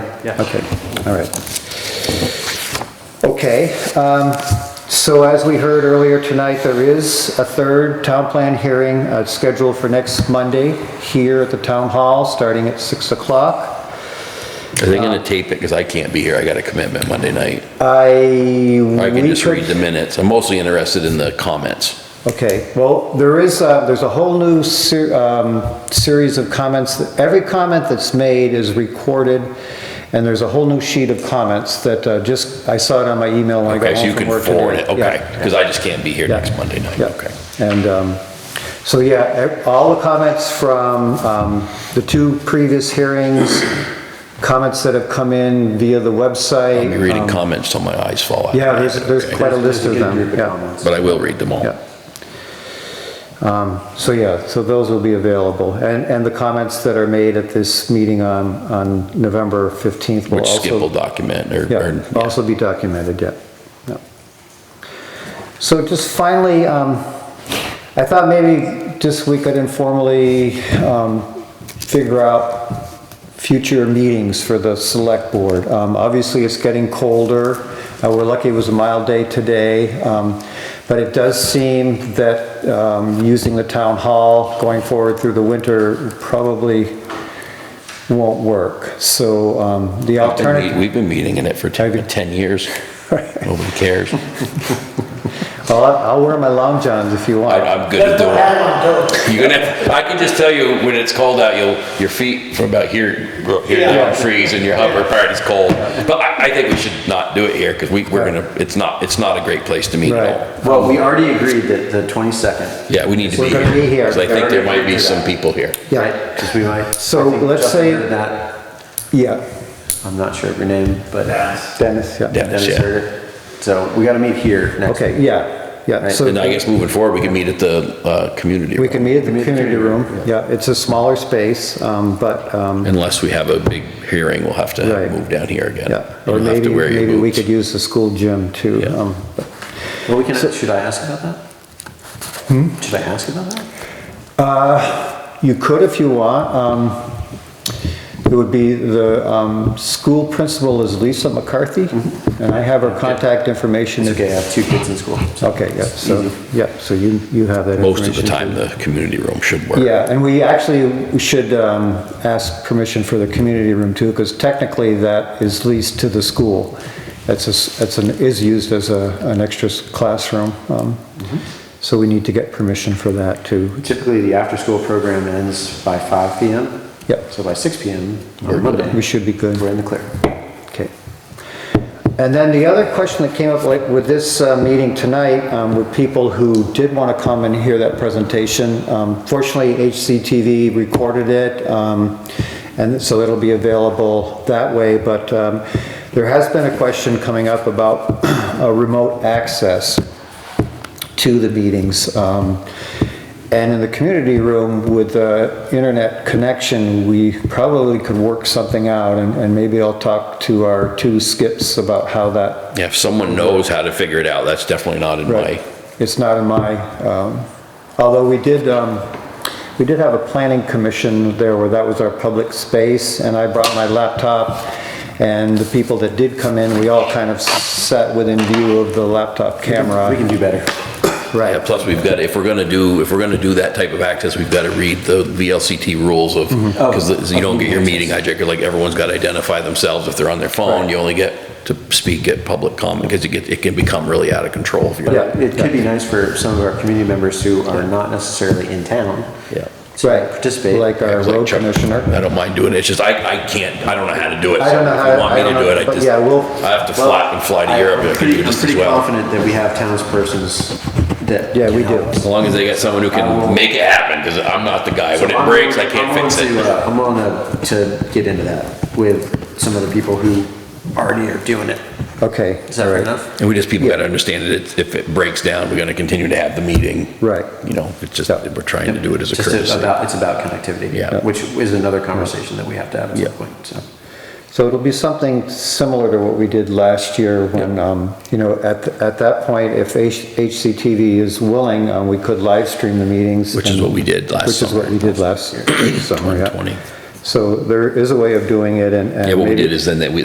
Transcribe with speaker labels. Speaker 1: Yeah.
Speaker 2: Okay, all right. Okay, um, so as we heard earlier tonight, there is a third town plan hearing uh, scheduled for next Monday here at the town hall, starting at 6 o'clock.
Speaker 3: Are
Speaker 2: Uh,
Speaker 3: they gonna tape it? Because I can't be here. I got a commitment Monday night.
Speaker 2: I...
Speaker 3: Or I can
Speaker 2: we
Speaker 3: just
Speaker 2: could-
Speaker 3: read the minutes. I'm mostly interested in the comments.
Speaker 2: Okay, well, there is, uh, there's a whole new ser- um, series of comments. that- Every comment that's made is recorded, and there's a whole new sheet of comments that uh, just, I saw it on my email when I
Speaker 3: Okay,
Speaker 2: got
Speaker 3: so you
Speaker 2: home
Speaker 3: can
Speaker 2: from work today.
Speaker 3: forward it, okay,
Speaker 2: Yeah.
Speaker 3: because I just can't be here
Speaker 2: Yeah.
Speaker 3: next Monday night,
Speaker 2: Yeah.
Speaker 3: okay.
Speaker 2: And um, so, yeah, e- all the comments from um, the two previous hearings, comments that have come in via the website.
Speaker 3: I'll be reading
Speaker 2: um,
Speaker 3: comments till my eyes fall out.
Speaker 2: Yeah, there's, there's
Speaker 3: Okay.
Speaker 2: quite a list of
Speaker 1: There's a good
Speaker 2: them,
Speaker 1: group of
Speaker 2: yeah.
Speaker 1: comments.
Speaker 3: But I will read them all.
Speaker 2: Yeah. Um, So, yeah, so those will be available. And, and the comments that are made at this meeting on, on November 15th will
Speaker 3: Which
Speaker 2: also.
Speaker 3: Skip will document or,
Speaker 2: Yeah,
Speaker 3: or-
Speaker 2: also be documented, yeah. yeah. So just finally, um, I thought maybe just we could informally um, figure out future meetings for the select board. Um, Obviously, it's getting colder. Uh, We're lucky it was a mild day today. um, But it does seem that um, using the town hall going forward through the winter probably won't work. So um, the
Speaker 3: I've been meet-
Speaker 2: alternative.
Speaker 3: We've been meeting in it for
Speaker 2: Have you?
Speaker 3: 10, 10 years. Nobody cares.
Speaker 2: Well, I- I'll wear my long johns if you
Speaker 3: I-
Speaker 2: want.
Speaker 3: I'm good at doing. You're gonna, have- I can just tell you, when it's cold out, you'll, your feet from about here, here down freeze and your upper part is cold. But I, I think we should not do it here because we, we're gonna, it's not, it's not a great place to meet
Speaker 2: Right.
Speaker 3: at all.
Speaker 1: Well, we already agreed that the 22nd.
Speaker 3: Yeah, we need to be
Speaker 2: We're
Speaker 3: here.
Speaker 2: gonna be here.
Speaker 3: 'cause I think there might be some people here.
Speaker 2: Yeah,
Speaker 1: Because we might.
Speaker 2: So
Speaker 1: I think
Speaker 2: let's
Speaker 1: Justin
Speaker 2: say-
Speaker 1: heard That,
Speaker 2: yeah,
Speaker 1: I'm not sure of your name, but.
Speaker 2: Dennis, yeah.
Speaker 3: Yeah.
Speaker 1: Dennis
Speaker 3: yeah.
Speaker 1: heard it. So we gotta meet here next.
Speaker 2: Okay, yeah, yeah.
Speaker 1: Right,
Speaker 2: So
Speaker 3: And I guess moving forward, we can meet at the, uh, community
Speaker 2: we
Speaker 3: room.
Speaker 2: can meet at the
Speaker 1: Meet at the
Speaker 2: community room.
Speaker 1: community
Speaker 2: Yeah, it's a smaller space, um, but, um,
Speaker 3: Unless we have a big hearing, we'll have to
Speaker 2: Right.
Speaker 3: move down here again.
Speaker 2: yeah.
Speaker 3: You'll
Speaker 2: Or
Speaker 3: have to
Speaker 2: maybe,
Speaker 3: wear your
Speaker 2: maybe we
Speaker 3: boots.
Speaker 2: could use the school gym too.
Speaker 3: Yeah.
Speaker 2: um, but-
Speaker 1: Well, we can, should I ask about that?
Speaker 2: Hmm?
Speaker 1: Should I ask about that?
Speaker 2: uh, You could if you want. um, It would be the, um, school principal is Lisa McCarthy,
Speaker 3: Mm-hmm.
Speaker 2: and I have her contact information.
Speaker 1: It's
Speaker 2: if-
Speaker 1: okay, I have two kids in school. so
Speaker 2: Okay, yeah,
Speaker 1: it's
Speaker 2: so,
Speaker 1: easy.
Speaker 2: yeah, so you, you have that information.
Speaker 3: Most of the time, the community room should work.
Speaker 2: Yeah, and we actually should um, ask permission for the community room too, because technically that is leased to the school. That's, a s- that's, an is used as a, an extra s- classroom. um, So we need to get permission for that too.
Speaker 1: Typically, the after-school program ends by 5 PM.
Speaker 2: Yep.
Speaker 1: So by 6 PM on Monday.
Speaker 2: We should be good.
Speaker 1: We're in the clear.
Speaker 2: Okay. And then the other question that came up, like with this uh, meeting tonight, um, were people who did want to come and hear that presentation. Um, Fortunately, HCTV recorded it, um, and so it'll be available that way. But um, there has been a question coming up about uh, remote access to the meetings. Um, And in the community room with the internet connection, we probably could work something out and, and maybe I'll talk to our two skips about how that,
Speaker 3: Yeah, if someone knows how to figure it out, that's definitely not in my,
Speaker 2: it's not in my, um, although we did, um, we did have a planning commission there where that was our public space and I brought my laptop and the people that did come in, we all kind of sat within view of the laptop camera.
Speaker 1: We can do better.
Speaker 2: Right.
Speaker 3: yeah, plus we've got, if we're gonna do, if we're gonna do that type of access, we've gotta read the VLCT rules of,
Speaker 2: Mm-hmm. Oh.
Speaker 3: because you don't get your meeting hijacker, like everyone's gotta identify themselves if they're on their phone, you only get to speak at public comment, because it get, it can become really out of control if you're.
Speaker 2: Yeah.
Speaker 1: It could be nice for some of our community members who are not necessarily in town.
Speaker 3: Yeah.
Speaker 1: to
Speaker 2: Right.
Speaker 1: Participate.
Speaker 2: Like our
Speaker 3: It's like
Speaker 2: road
Speaker 3: Chuck,
Speaker 2: commissioner.
Speaker 3: I don't mind doing it, it's just I, I can't, I don't know how to do it.
Speaker 2: I don't know
Speaker 3: so if
Speaker 2: how-
Speaker 3: you want me
Speaker 2: I don't
Speaker 3: to do
Speaker 2: know,
Speaker 3: it, I
Speaker 2: but
Speaker 3: just-
Speaker 2: yeah, we'll-
Speaker 3: I have to fly, and fly to
Speaker 1: Well,
Speaker 3: Europe,
Speaker 1: I'm
Speaker 3: I can
Speaker 1: pretty-
Speaker 3: do
Speaker 1: I'm
Speaker 3: this as
Speaker 1: pretty
Speaker 3: well.
Speaker 1: confident that we have townspersons that.
Speaker 2: Yeah, we
Speaker 1: can
Speaker 2: do.
Speaker 1: help us.
Speaker 3: As long as they got someone who
Speaker 1: I
Speaker 2: Um,
Speaker 1: will-
Speaker 3: can make it happen, because I'm not the guy, when
Speaker 1: I'm
Speaker 3: it breaks, I
Speaker 1: willing-
Speaker 3: can't
Speaker 1: I'm
Speaker 3: fix
Speaker 1: willing
Speaker 3: it.
Speaker 1: to, uh, I'm willing to, to get into that with some of the people who already are doing it.
Speaker 2: Okay.
Speaker 1: Is that fair enough?
Speaker 3: And we just, people gotta understand that it's- if it breaks down, we're gonna continue to have the meeting.
Speaker 2: Right.
Speaker 3: You know, it's just,
Speaker 2: Yeah.
Speaker 3: that we're trying to do it as a
Speaker 1: Just
Speaker 3: courtesy.
Speaker 1: about, it's about connectivity.
Speaker 3: Yeah.
Speaker 1: Which is another conversation that we have to have at
Speaker 3: Yeah.
Speaker 1: some point, so.
Speaker 2: So it'll be something similar to what we did last year when, um, you know, at, at that point, if H- HCTV is willing, um, we could live stream the meetings.
Speaker 3: Which is
Speaker 2: and-
Speaker 3: what we did last
Speaker 2: Which is what
Speaker 3: summer.
Speaker 2: we did last summer, yeah.
Speaker 3: 2020.
Speaker 2: So there is a way of doing it and. and
Speaker 3: Yeah, what we
Speaker 2: maybe-
Speaker 3: did is then that we,